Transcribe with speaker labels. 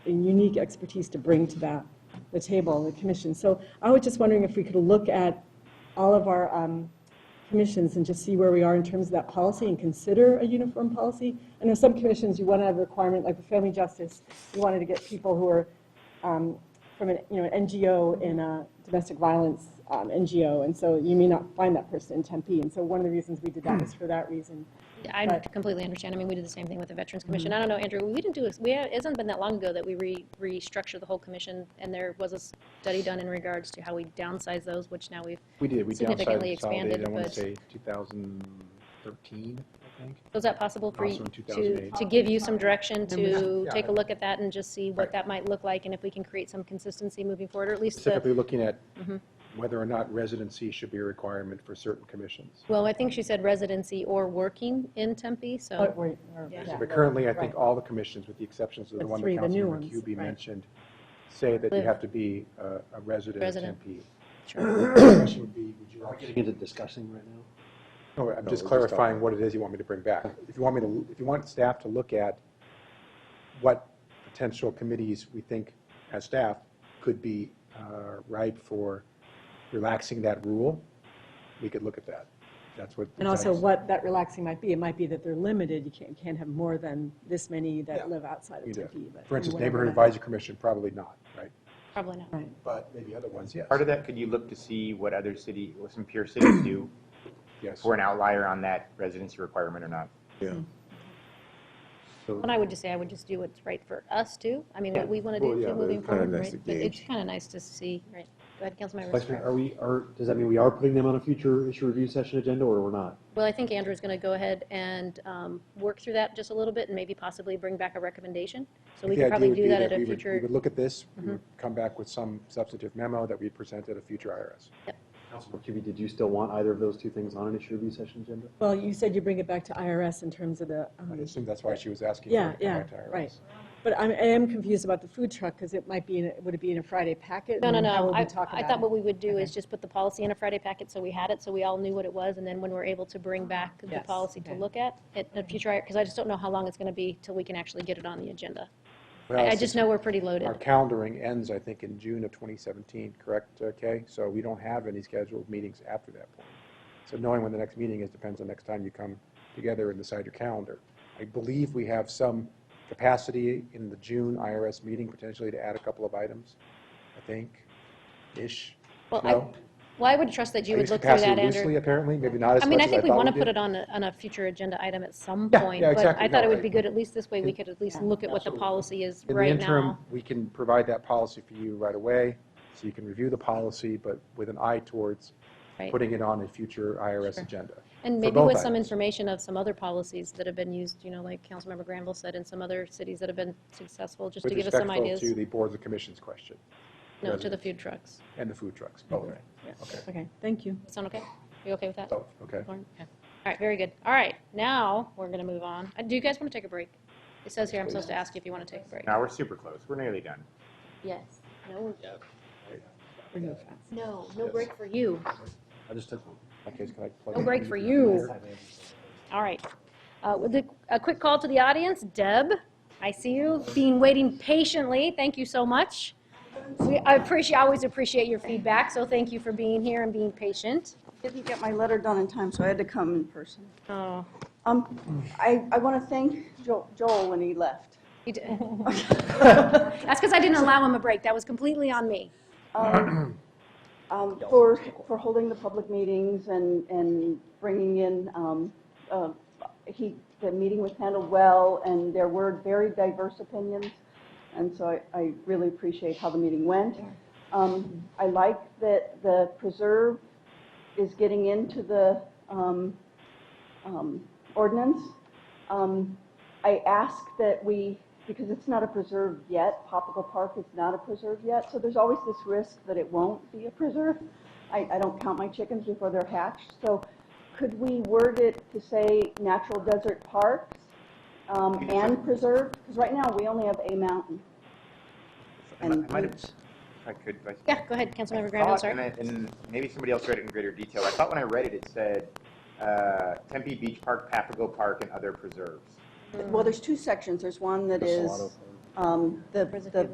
Speaker 1: unique expertise to bring to that, the table, the commission. So I was just wondering if we could look at all of our um, commissions and just see where we are in terms of that policy and consider a uniform policy. I know some commissions, you want to have a requirement, like the Family Justice, you wanted to get people who are um, from an, you know, an NGO in a domestic violence um, NGO, and so you may not find that person in Tempe. And so one of the reasons we did that was for that reason.
Speaker 2: I
Speaker 1: Right.
Speaker 2: completely understand. I mean, we did the same thing with the Veterans Commission. I don't know, Andrew, we didn't do, this- we, it hasn't been that long ago that we re, restructured the whole commission, and there was a study done in regards to how we downsize those, which now we've,
Speaker 3: We did, we downsized,
Speaker 2: Significantly
Speaker 3: consolidated,
Speaker 2: expanded,
Speaker 3: I want to
Speaker 2: but-
Speaker 3: say 2013, I think.
Speaker 2: was that possible for
Speaker 3: Also
Speaker 2: you
Speaker 3: in
Speaker 2: to,
Speaker 3: 2008.
Speaker 2: to give you some direction to
Speaker 3: Yeah.
Speaker 2: take a look at that and just see what
Speaker 3: Right.
Speaker 2: that might look like, and if we can create some consistency moving forward, or at least the
Speaker 3: Specifically looking at
Speaker 2: Mm-hmm.
Speaker 3: whether or not residency should be a requirement for certain commissions.
Speaker 2: Well, I think she said residency or working in Tempe,
Speaker 1: But
Speaker 2: so,
Speaker 1: we're- we're-
Speaker 2: Yeah.
Speaker 1: yeah.
Speaker 3: But currently, I think
Speaker 1: Right.
Speaker 3: all the commissions, with the exceptions of the
Speaker 1: The
Speaker 3: one that
Speaker 1: three, the new
Speaker 3: Councilman
Speaker 1: ones,
Speaker 3: McCubey
Speaker 1: right.
Speaker 3: mentioned, say that you
Speaker 2: Live.
Speaker 3: have to be uh, a resident
Speaker 2: Resident.
Speaker 3: MP.
Speaker 2: sure.
Speaker 3: The question would be, would you
Speaker 4: Are we
Speaker 3: actually-
Speaker 4: getting into discussing right now?
Speaker 3: No, I'm just
Speaker 4: we're just
Speaker 3: clarifying
Speaker 4: talking.
Speaker 3: what it is you want me to bring back. If you want me to, if you want staff to look at what potential committees we think as staff could be uh, ripe for relaxing that rule, we could look at that. That's what.
Speaker 1: And also what that relaxing might be. It might be that they're limited. You can't, can't have more than this many
Speaker 3: Yeah.
Speaker 1: that live outside
Speaker 3: You
Speaker 1: of
Speaker 3: do.
Speaker 1: Tempe. but
Speaker 3: For instance,
Speaker 1: whatever
Speaker 3: Neighborhood
Speaker 1: that-
Speaker 3: Advisory Commission, probably not, right?
Speaker 2: probably not.
Speaker 1: Right.
Speaker 3: But maybe other ones, yes.
Speaker 5: Part of that, could you look to see what other city, what some peer cities do,
Speaker 3: Yes.
Speaker 5: if we're an outlier on that residency requirement or not?
Speaker 2: And I would just say, I would just do what's right for us too. I mean, what we want to
Speaker 6: Well,
Speaker 2: do
Speaker 6: yeah,
Speaker 2: too
Speaker 6: but
Speaker 2: moving
Speaker 6: it's kinda
Speaker 2: forward,
Speaker 6: nice
Speaker 2: right?
Speaker 6: to
Speaker 2: But It's
Speaker 6: gauge.
Speaker 2: kind of nice to see, right? Go ahead, Councilmember.
Speaker 4: Vice Mayor,
Speaker 2: Rivera.
Speaker 4: Are we, are, does that mean we are putting them on a future issue review session agenda or we're not?
Speaker 2: Well, I think Andrew's going to go ahead and um, work through that just a little bit and maybe possibly bring back a recommendation. So we
Speaker 3: The
Speaker 2: could probably
Speaker 3: idea would
Speaker 2: do that
Speaker 3: be
Speaker 2: at
Speaker 3: we
Speaker 2: a
Speaker 3: would- We
Speaker 2: future, Mm-hmm.
Speaker 3: would look at this, we would come back with some substantive memo that we present at a future IRS.
Speaker 4: Councilman Cubey, did you still want either of those two things on an issue review session agenda?
Speaker 1: Well, you said you bring it back to IRS in terms of the,
Speaker 3: I
Speaker 1: um,
Speaker 2: Mm-hmm.
Speaker 3: assume that's why she was asking.
Speaker 1: yeah,
Speaker 3: for it to
Speaker 1: yeah,
Speaker 3: come back to
Speaker 1: right.
Speaker 3: IRS.
Speaker 1: But I'm, I am confused about the food truck because it might be, in a- would it be in a Friday packet?
Speaker 2: no, no,
Speaker 1: And how
Speaker 2: no.
Speaker 1: would we
Speaker 2: I
Speaker 1: talk
Speaker 2: I
Speaker 1: about
Speaker 2: thought
Speaker 1: it?
Speaker 2: what we would do is just put the policy in a Friday packet so we had it, so we all knew what it was. And then when we're able to bring back the
Speaker 1: Yes,
Speaker 2: policy to
Speaker 1: okay.
Speaker 2: look at, at a future, because I just don't know how long it's going to be till we can actually get it on the agenda.
Speaker 3: Well,
Speaker 2: I I
Speaker 3: since
Speaker 2: just know we're pretty loaded.
Speaker 3: Our calendaring ends, I think, in June of 2017, correct, uh, Kay? So we don't have any scheduled meetings after that point. So knowing when the next meeting is depends on next time you come together and decide your calendar. I believe we have some capacity in the June IRS meeting potentially to add a couple of items, I think, ish.
Speaker 2: Well, I,
Speaker 3: No?
Speaker 2: well, I would trust that you
Speaker 3: I
Speaker 2: would
Speaker 3: use
Speaker 2: look through that,
Speaker 3: capacity loosely,
Speaker 2: Andrew.
Speaker 3: apparently, maybe not as
Speaker 2: I mean, I
Speaker 3: much as I
Speaker 2: think we
Speaker 3: thought
Speaker 2: want to
Speaker 3: we
Speaker 2: put
Speaker 3: did.
Speaker 2: it on a, on a future agenda item at some
Speaker 3: Yeah,
Speaker 2: point.
Speaker 3: yeah,
Speaker 2: But
Speaker 3: exactly.
Speaker 2: I thought
Speaker 3: No,
Speaker 2: it would
Speaker 3: I-
Speaker 2: be good, at least this way, we
Speaker 3: In-
Speaker 2: could at least look at what the policy is
Speaker 3: In the
Speaker 2: right
Speaker 3: interim,
Speaker 2: now.
Speaker 3: we can provide that policy for you right away, so you can review the policy, but with an eye towards
Speaker 2: Right.
Speaker 3: putting it on a future IRS
Speaker 2: Sure.
Speaker 3: agenda.
Speaker 2: And
Speaker 3: for
Speaker 2: maybe
Speaker 3: both
Speaker 2: with some
Speaker 3: items.
Speaker 2: information of some other policies that have been used, you know, like Councilmember Granville said, in some other cities that have been successful, just to give us some
Speaker 3: With
Speaker 2: ideas.
Speaker 3: respectful to the boards and commissions question,
Speaker 2: No, to the food trucks.
Speaker 3: and the food trucks, both, okay,
Speaker 1: Okay, thank you.
Speaker 2: Sound okay? You okay with that?
Speaker 3: both, okay.
Speaker 2: Lauren? Okay. All right, very good. All right, now we're going to move on. Uh, Do you guys want to take a break? It says here I'm supposed to ask you if you want to take a break.
Speaker 5: Now, we're super close, we're nearly done.
Speaker 2: Yes. No,
Speaker 1: We're going fast.
Speaker 2: no, no break for you.
Speaker 4: I just took one.
Speaker 3: Okay, so can I plug
Speaker 2: No
Speaker 3: in?
Speaker 2: break for you. All right. Uh, with a- A quick call to the audience. Deb, I see you, been waiting patiently. Thank you so much. We, I appreciate, I always appreciate your feedback, so thank you for being here and being patient.
Speaker 7: Didn't get my letter done in time, so I had to come in person.
Speaker 2: Oh.
Speaker 7: Um, I, I want to thank Jo- Joel when he left.
Speaker 2: you d- That's because I didn't allow him a break. That was completely on me.
Speaker 7: um, um, for, for holding the public meetings and, and bringing in, um, uh, he, the meeting was handled well, and there were very diverse opinions, and so I, I really appreciate how the meeting went. Um, I like that the preserve is getting into the um, um, ordinance. Um, I ask that we, because it's not a preserve yet, Popical Park is not a preserve yet, so there's always this risk that it won't be a preserve. I, I don't count my chickens before they're hatched, so could we word it to say natural desert parks um, and preserve? Because right now, we only have a mountain.
Speaker 5: I might-
Speaker 7: And
Speaker 5: I might have-
Speaker 7: beach.
Speaker 5: if I could, Vice-
Speaker 2: Yeah, go ahead, Councilmember
Speaker 5: I
Speaker 2: Granville,
Speaker 5: thought- And,
Speaker 2: sorry.
Speaker 5: I- and maybe somebody else read it in greater detail. I thought when I read it, it said uh, Tempe Beach Park, Papago Park, and other preserves.
Speaker 7: Well, there's two sections. There's one that is um, the,
Speaker 2: There's a
Speaker 7: the